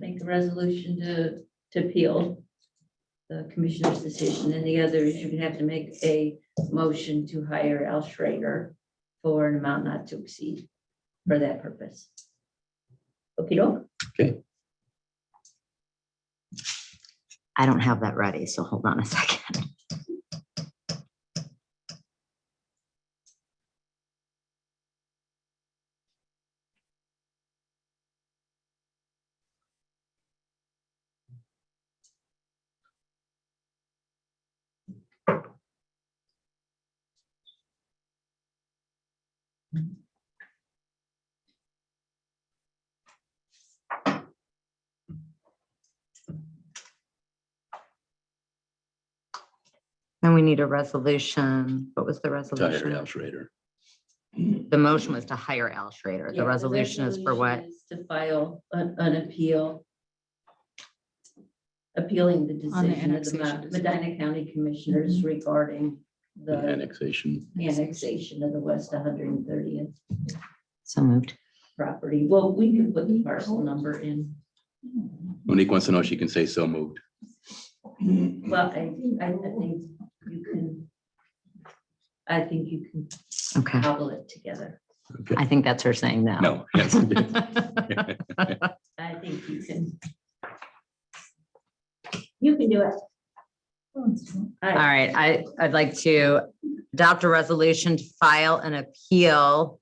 the resolution to, to appeal the commissioner's decision, and the other is you're gonna have to make a motion to hire Al Schrader for an amount not to exceed for that purpose. Okay, doke? I don't have that ready, so hold on a second. And we need a resolution. What was the Tire resolution? Al Schrader. The motion was to hire Al Schrader. The resolution is for what? To file an, an appeal. Appealing the On the decision of the Ma- annexation. Medina County Commissioners regarding the the annexation. annexation of the West one hundred and thirtieth So moved. property. Well, we can put the parcel number in. Monique wants to know if she can say so moved. Well, I, I think you can. I think you can Okay. cobble it together. Okay. I think that's her saying no. No. I think you can. You can do it. All right, I, I'd like to adopt a resolution to file an appeal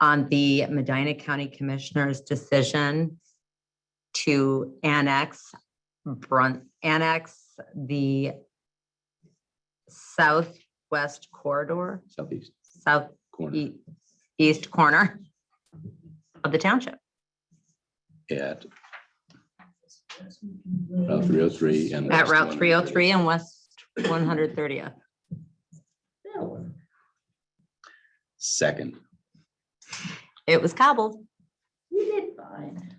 on the Medina County Commissioner's decision to annex Brunt, annex the southwest corridor, Southeast southeast corner E-, corner of the township. at Route three oh three and. At West Route 130. 303 and West 130th. Second, It was cobbled. You did fine.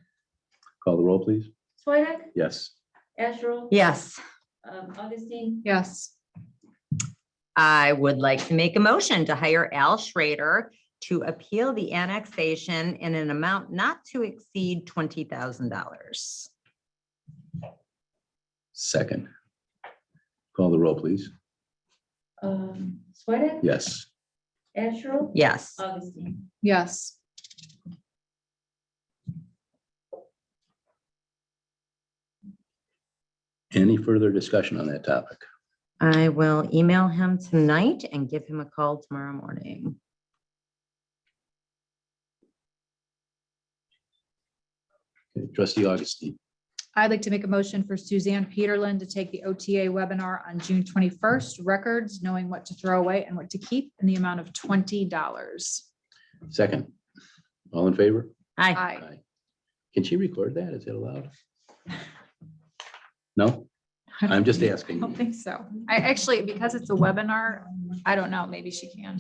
call the roll, please. Swedek, Yes. Asherle? Yes, Um, Augustine? Yes. I would like to make a motion to hire Al Schrader to appeal the annexation in an amount not to exceed $20,000. Second, call the roll, please. Um, Swedek? Yes. Asherle? Yes. Augustine? Yes. Any further discussion on that topic? I will email him tonight and give him a call tomorrow morning. Okay, Trustee Augustine, I'd like to make a motion for Suzanne Peterlin to take the OTA webinar on June twenty-first, records, knowing what to throw away and what to keep in the amount of twenty dollars. second. All in favor? Hi, Aye. Can she record that? Is it allowed? No? I'm just I asking. don't think so. I actually, because it's a webinar, I don't know, maybe she can.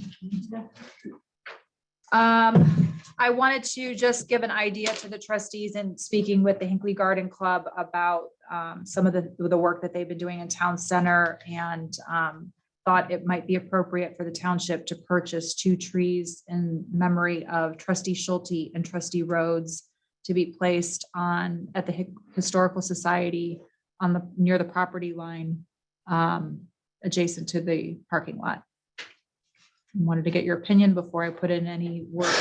Um, I wanted to just give an idea to the trustees and speaking with the Hinkley Garden Club about um, some of the, the work that they've been doing in town center and um, thought it might be appropriate for the township to purchase two trees in memory of trustee Schulte and trustee Rhodes to be placed on, at the Hic- Historical Society on the, near the property line um, adjacent to the parking lot. Wanted to get your opinion before I put in any work.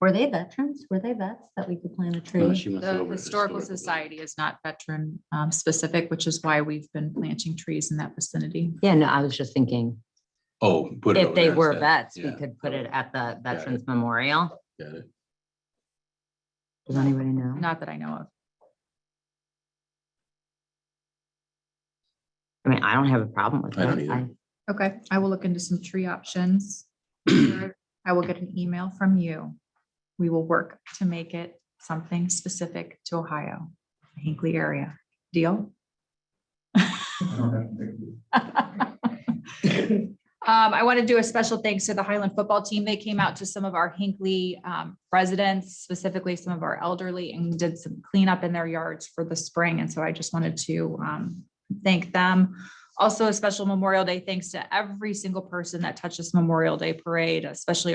were they veterans? Were they vets that we could plant a No, tree? Uh, she wants to go The over to Historical Society. Society is not veteran um, specific, which is why we've been planting trees in that vicinity. Yeah, no, I was just thinking, Oh. put it if over they there were instead. vets, we Yeah, could put it at the Got it. Veterans Memorial. Got it. Does anybody know? Not that I know of. I mean, I don't have a problem with I don't that. either. I- Okay, I will look into some tree options. I will get an email from you. We will work to make it something specific to Ohio, Hinkley area. Deal? Um, I want to do a special thanks to the Highland football team. They came out to some of our Hinkley um, residents, specifically some of our elderly, and did some cleanup in their yards for the spring. And so I just wanted to um, thank them. Also a special Memorial Day thanks to every single person that touched this Memorial Day parade, especially